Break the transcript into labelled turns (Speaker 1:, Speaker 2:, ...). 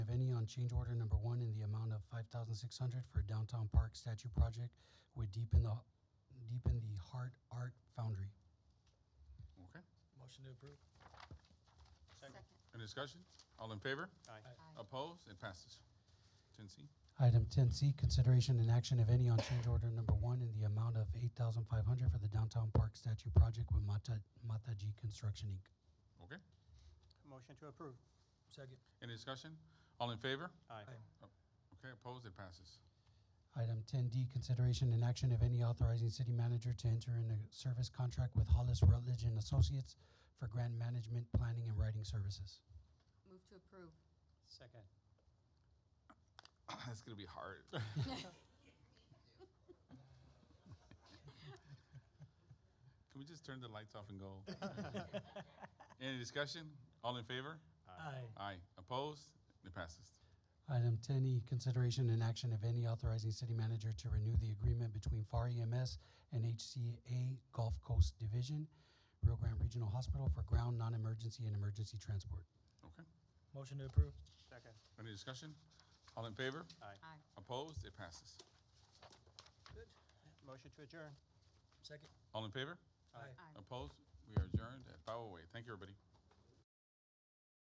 Speaker 1: change order number one in the amount of five thousand six hundred for downtown park statue project with Deep in the, Deep in the Heart Art Foundry.
Speaker 2: Okay.
Speaker 3: Motion to approve.
Speaker 4: Second.
Speaker 2: Any discussion? All in favor?
Speaker 4: Aye.
Speaker 2: Opposed? It passes. Ten C.
Speaker 1: Item ten C, consideration and action, if any, on change order number one in the amount of eight thousand five hundred for the downtown park statue project with Mata, Mataji Construction Inc.
Speaker 2: Okay.
Speaker 3: Motion to approve. Second.
Speaker 2: Any discussion? All in favor?
Speaker 3: Aye.
Speaker 2: Okay, opposed? It passes.
Speaker 1: Item ten D, consideration and action, if any, authorizing city manager to enter in a service contract with Hollis Rutledge and Associates for grant management, planning, and writing services.
Speaker 4: Move to approve.
Speaker 3: Second.
Speaker 2: That's gonna be hard. Can we just turn the lights off and go? Any discussion? All in favor?
Speaker 3: Aye.
Speaker 2: Aye. Opposed? It passes.
Speaker 1: Item ten E, consideration and action, if any, authorizing city manager to renew the agreement between FAR EMS and HCA Gulf Coast Division, Rio Grande Regional Hospital for ground, non-emergency, and emergency transport.
Speaker 2: Okay.
Speaker 3: Motion to approve. Second.
Speaker 2: Any discussion? All in favor?
Speaker 4: Aye.
Speaker 2: Opposed? It passes.
Speaker 3: Good. Motion to adjourn. Second.
Speaker 2: All in favor?
Speaker 4: Aye.
Speaker 2: Opposed? We are adjourned at five oh eight. Thank you, everybody.